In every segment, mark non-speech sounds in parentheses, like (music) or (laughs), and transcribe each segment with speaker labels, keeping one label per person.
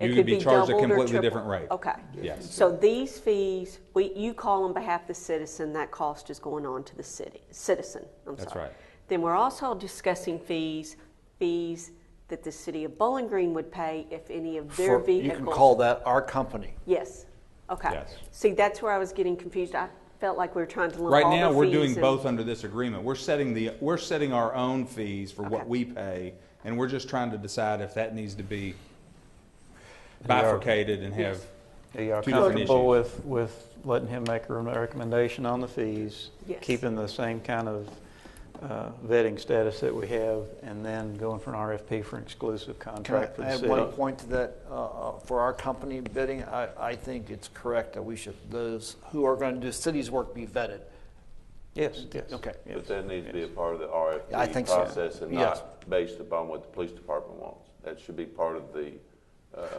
Speaker 1: It
Speaker 2: You
Speaker 1: could
Speaker 2: would be charged
Speaker 1: doubled
Speaker 2: a
Speaker 1: or
Speaker 2: completely
Speaker 1: tripled.
Speaker 2: different rate.
Speaker 1: Okay.
Speaker 2: Yes.
Speaker 1: So these fees, we, you call on behalf of the citizen, that cost is going on to the city, citizen, I'm sorry.
Speaker 2: That's right.
Speaker 1: Then we're also discussing fees, fees that the city of Bowling Green would pay if any of their
Speaker 3: For- You
Speaker 1: vehicles.
Speaker 3: can call that our company.
Speaker 1: Yes, okay.
Speaker 2: Yes.
Speaker 1: See, that's where I was getting confused. I felt like we were trying to lump all the
Speaker 2: Right now, we're doing
Speaker 1: fees and-
Speaker 2: both under this agreement. We're setting the, we're setting our own fees for what
Speaker 1: Okay.
Speaker 2: we pay, and we're just trying to decide if that needs to be
Speaker 4: are.
Speaker 2: bifurcated and have,
Speaker 4: Are y'all
Speaker 2: Two different
Speaker 4: comfortable
Speaker 2: issues.
Speaker 4: with, with letting him make a re- recommendation on the fees?
Speaker 1: Yes.
Speaker 4: Keeping the same kind of uh, vetting status that we have, and then going for an RFP for an exclusive
Speaker 3: Can I
Speaker 4: contract for the
Speaker 3: add
Speaker 4: city?
Speaker 3: one point to that? Uh, uh, For our company bidding, I, I think it's correct that we should, those who are going to do cities work be vetted.
Speaker 4: Yes, yes.
Speaker 3: Okay.
Speaker 4: yes.
Speaker 5: But that needs to be a
Speaker 4: Yes.
Speaker 5: part of the
Speaker 3: Yeah, I think
Speaker 5: RFP
Speaker 3: so.
Speaker 5: process and
Speaker 3: Yes.
Speaker 5: not based upon what the police department wants. That should be part of the,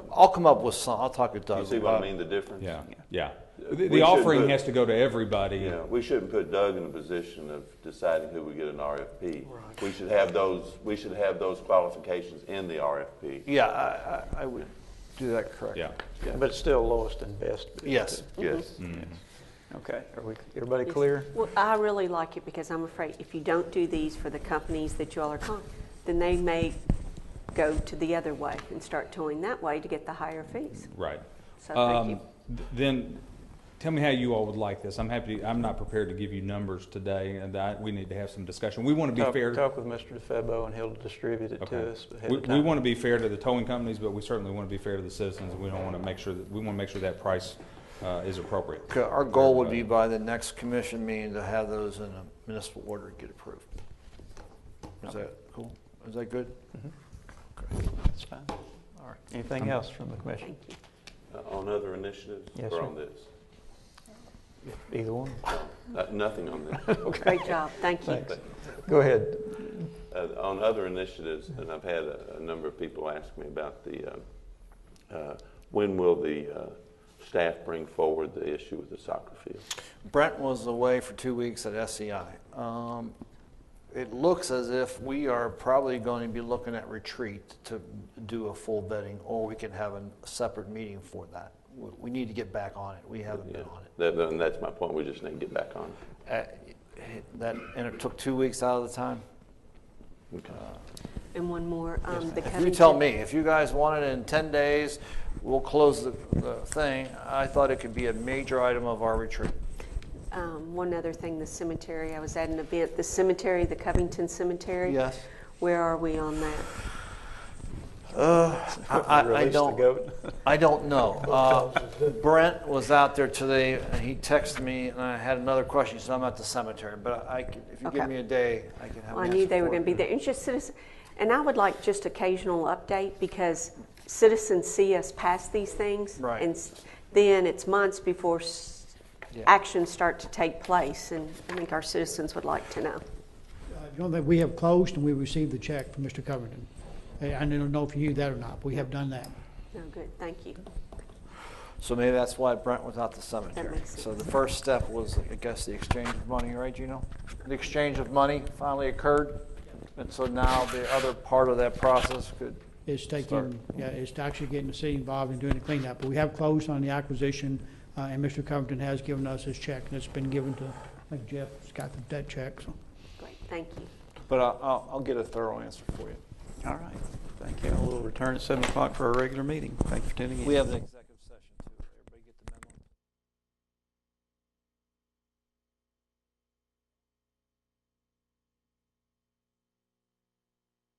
Speaker 3: I'll come up with some, I'll talk with Doug.
Speaker 5: you see what I
Speaker 3: about-
Speaker 5: mean, the difference?
Speaker 2: yeah, yeah.
Speaker 5: We
Speaker 2: The- The
Speaker 5: should
Speaker 2: offering
Speaker 5: put-
Speaker 2: has to go to everybody.
Speaker 5: You know, we shouldn't put Doug in a position of deciding who would get an RFP. We should have those, we should have those qualifications in the RFP.
Speaker 3: Yeah, I, I- I would do that correct.
Speaker 2: Yeah.
Speaker 4: But it's still lowest and best. bid,
Speaker 3: Yes.
Speaker 4: too.
Speaker 5: Yes.
Speaker 2: Mm-hmm.
Speaker 4: Okay, are we, everybody
Speaker 1: Yes.
Speaker 4: clear?
Speaker 1: Well, I really like it because I'm afraid if you don't do these for the companies that you all are calling, then they may go to the other way and start towing that way to get the higher fees.
Speaker 2: Right.
Speaker 1: So thank you.
Speaker 2: Um, th- Then, tell me how you all would like this. I'm happy, I'm not prepared to give you numbers today, and I, we need to have some discussion. We want to be
Speaker 4: Talk-
Speaker 2: fair.
Speaker 4: Talk with Mr. DeFebo, and he'll distribute it
Speaker 2: Okay.
Speaker 4: to us ahead
Speaker 2: We,
Speaker 4: of time.
Speaker 2: we want to be fair to the towing companies, but we certainly want to be fair to the citizens, and we don't want to make sure that, we want to make sure that price, uh, is appropriate.
Speaker 3: Okay, Our goal would be by the next commission meeting to have those in a municipal order get approved. Is that cool? Is that good?
Speaker 4: That's fine. All right.
Speaker 2: Um,
Speaker 4: Anything else from the commission?
Speaker 5: Uh, On other initiatives
Speaker 4: Yes,
Speaker 5: or
Speaker 4: sir.
Speaker 5: on this?
Speaker 4: Either one?
Speaker 5: Uh, Nothing on
Speaker 3: (laughs)
Speaker 5: this.
Speaker 1: Great job, thank you.
Speaker 4: Thanks. Go ahead.
Speaker 5: Uh, On other initiatives, and I've had a a number of people ask me about the, uh, uh, when will the uh, staff bring forward the issue with the soccer field?
Speaker 3: Brent was away for two weeks at SEI. Um, It looks as if we are probably going to be looking at retreat to do a full vetting, or we can have a separate meeting for that. We- We need to get back on it. We haven't
Speaker 5: Yeah,
Speaker 3: been on it.
Speaker 5: That- that- And that's my point, we just need to get back on. it.
Speaker 3: Uh, That, and it took two weeks out of the time?
Speaker 1: And one more, um, the
Speaker 3: If you
Speaker 1: Covington.
Speaker 3: tell me, if you guys want it in 10 days, we'll close the, the thing. I thought it could be a major item of our retreat.
Speaker 1: Um, one other thing, the cemetery, I was at an event, the cemetery, the Covington Cemetery.
Speaker 3: Yes.
Speaker 1: Where are we on that?
Speaker 3: Uh, I, I- I
Speaker 4: Release the
Speaker 3: don't.
Speaker 4: goat.
Speaker 3: I don't know. Uh, Brent was out there today, and he texted me, and I had another question, so I'm at the cemetery, but I, can- if you give
Speaker 1: Okay.
Speaker 3: me a day, I can have
Speaker 1: Well,
Speaker 3: an
Speaker 1: I
Speaker 3: answer
Speaker 1: knew they were
Speaker 3: for
Speaker 1: going to
Speaker 3: you.
Speaker 1: be there. It's just citizen, and I would like just occasional update because citizens see us pass these things.
Speaker 3: Right.
Speaker 1: And s- then it's months before s-
Speaker 3: Yeah.
Speaker 1: actions start to take place, and I think our citizens would like to know.
Speaker 6: Uh, The only thing, we have closed and we received the check from Mr. Covington. I I don't know if you knew that or not, but we have done that.
Speaker 1: No, Oh, good, thank you.
Speaker 3: So maybe that's why Brent was out the cemetery.
Speaker 1: makes
Speaker 3: So the first step was, I guess, the exchange of money, right, Gino? The exchange of money finally occurred, and so now the other part of that process could,
Speaker 6: It's taking, yeah, it's actually getting the city involved in doing the cleanup. But we have closed on the acquisition, uh, and Mr. Covington has given us his check, and it's been given to, I think Jeff's got that check, so.
Speaker 1: Great, thank you.
Speaker 3: but I- I'll, I'll get a thorough answer for you.
Speaker 4: All right. Thank you. We'll return at 7 o'clock for our regular meeting. Thank you for tuning in.
Speaker 3: We have an executive session too. Everybody get the memo?